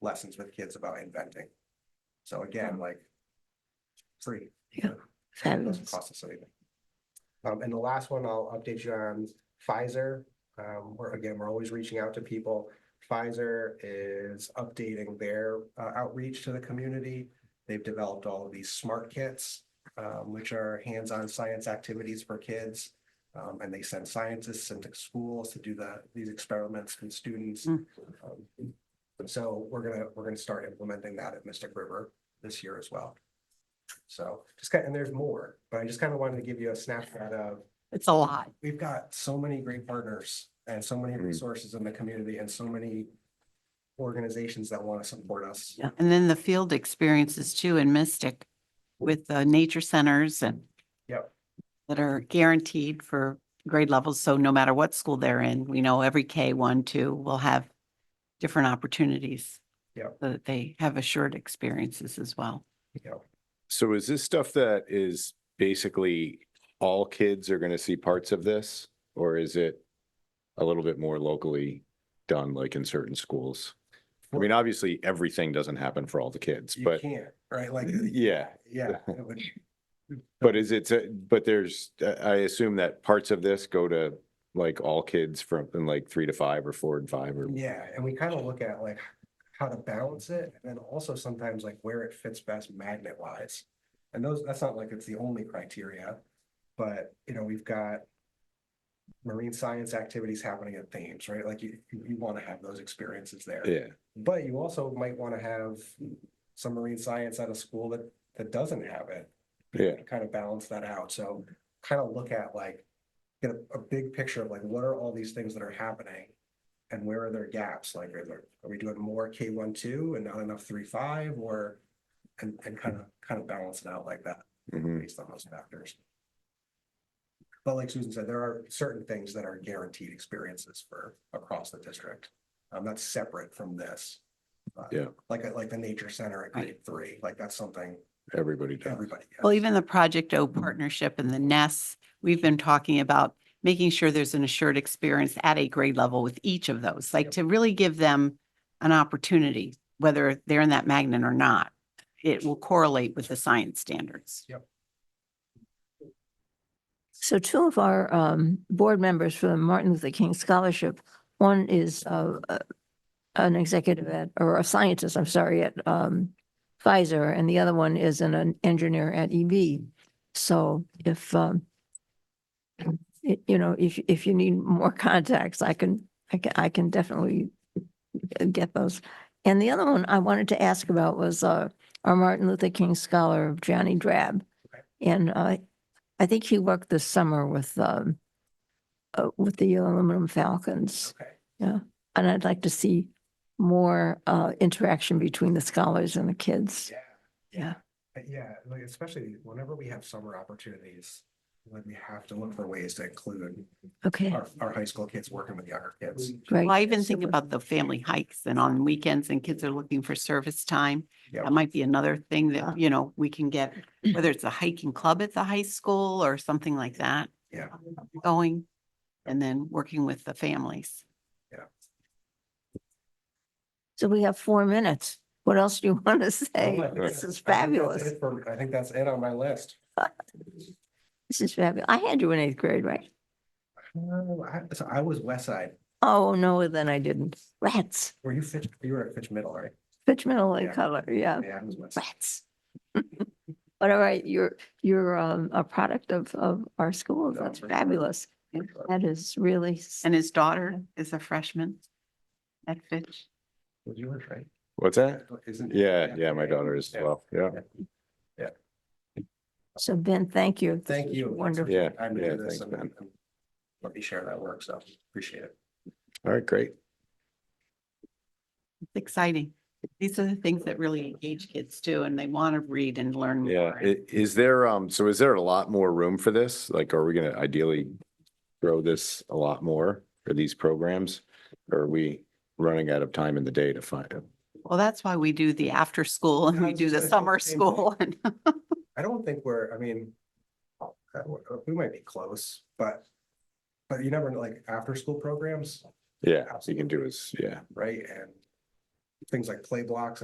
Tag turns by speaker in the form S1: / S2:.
S1: lessons with kids about inventing. So again, like. Free, doesn't
S2: Fabulous.
S1: cost us anything. Um, and the last one I'll update you on Pfizer. Um, we're again, we're always reaching out to people. Pfizer is updating their uh, outreach to the community. They've developed all of these smart kits, um, which are hands-on science activities for kids. Um, and they send scientists into schools to do the, these experiments with students.
S3: Mm.
S1: Um, So we're gonna, we're gonna start implementing that at Mystic River this year as well. So just kind, and there's more, but I just kind of wanted to give you a snapshot of
S3: It's a lot.
S1: we've got so many great partners and so many
S4: Mhm.
S1: resources in the community and so many organizations that want to support us.
S3: And then the field experiences too in Mystic with the nature centers and
S1: Yep.
S3: that are guaranteed for grade levels. So no matter what school they're in, we know every K one, two will have different opportunities.
S1: Yep.
S3: So that they have assured experiences as well.
S1: You know,
S4: So is this stuff that is basically all kids are going to see parts of this? Or is it a little bit more locally done, like in certain schools? I mean, obviously, everything doesn't happen for all the kids,
S1: you
S4: but
S1: can't, right? Like,
S4: yeah.
S1: yeah, it would,
S4: But is it, uh, but there's, I I assume that parts of this go to like all kids from in like three to five or four and five or,
S1: yeah. And we kind of look at like how to balance it and then also sometimes like where it fits best magnet wise. And those, that's not like it's the only criteria, but you know, we've got marine science activities happening at Thames, right? Like you, you- you want to have those experiences there.
S4: yeah.
S1: But you also might want to have some marine science at a school that, that doesn't have it.
S4: Yeah.
S1: Kind of balance that out. So kind of look at like, get a, a big picture of like, what are all these things that are happening? And where are their gaps? Like, are there, are we doing more K one, two and not enough three, five or? And, and kind of, kind of balance it out like that
S4: Mhm.
S1: based on those factors. But like Susan said, there are certain things that are guaranteed experiences for across the district. Um, that's separate from this. Uh,
S4: Yeah.
S1: Like, like the nature center at grade three, like that's something
S4: Everybody does.
S1: everybody. gets.
S3: Well, even the Project O partnership and the NES, we've been talking about making sure there's an assured experience at a grade level with each of those, like
S1: Yep.
S3: to really give them an opportunity, whether they're in that magnet or not. It will correlate with the science standards.
S2: So two of our um, board members for the Martin Luther King Scholarship, one is uh, uh, an executive at, or a scientist, I'm sorry, at um, Pfizer, and the other one is an- an engineer at EB. So if, um, y- you know, if, if you need more contacts, I can, I can, I can definitely get those. And the other one I wanted to ask about was uh, our Martin Luther King Scholar, Johnny Drab.
S1: Okay.
S2: And uh, I think he worked this summer with, um, uh, with the aluminum falcons.
S1: Okay.
S2: And I'd like to see more, uh, interaction between the scholars and the kids.
S1: Yeah.
S2: Yeah.
S1: Uh, Yeah, like especially whenever we have summer opportunities, like we have to look for ways to include
S2: Okay,
S1: our, our high school kids working with younger kids.
S2: great.
S3: Well, I even think
S2: Super.
S3: about the family hikes and on weekends and kids are looking for service time.
S1: Yeah.
S3: That might be another thing
S2: Yeah.
S3: that, you know, we can get, whether it's a hiking club at the high school or something like that.
S1: Yeah.
S3: Going and then working with the families.
S2: So we have four minutes. What else do you want to say?
S1: Well, I think
S2: This
S1: that's-
S2: is
S1: I think that's
S2: fabulous.
S1: it for- I think that's it on my list.
S2: This is fabulous. I had you in eighth grade, right?
S1: Um, I, so I was West Side.
S2: Oh, no, then I didn't. Rats,
S1: Were you Fitch, you were at Fitch Middle, right?
S2: Fitch Middle and
S1: Yeah.
S2: Color, yeah,
S1: Yeah, I was West.
S2: rats. But all right, you're, you're, um, a product of, of our school.
S1: No,
S2: That's
S1: for sure.
S2: fabulous.
S1: Side.
S2: That is really. s-
S3: And his daughter is a freshman at Fitch.
S1: Was yours, right?
S4: What's that?
S1: Isn't?
S4: Yeah, yeah, my daughter is
S1: Yeah.
S4: as well. Yeah.
S2: So Ben, thank you. This
S1: Thank
S2: was
S1: you.
S2: Wonderful.
S4: Yeah,
S1: I'm
S4: yeah,
S1: doing this
S4: thanks,
S1: and
S4: man.
S1: and let me share that work, so appreciate it.
S4: All right, great.
S3: It's exciting. These are the things that really engage kids too, and they want to read and learn
S4: Yeah,
S3: more.
S4: i- is there, um, so is there a lot more room for this? Like, are we gonna ideally grow this a lot more for these programs? Or are we running out of time in the day to find them?
S3: Well, that's why we do the after school and
S1: Yeah, I
S3: we
S1: was
S3: do
S1: just
S3: the
S1: gonna say
S3: summer
S1: the same thing.
S3: school and
S1: I don't think we're, I mean, uh, we might be close, but but you never know, like after school programs,
S4: Yeah, so you can do is, yeah,
S1: right? And things like play blocks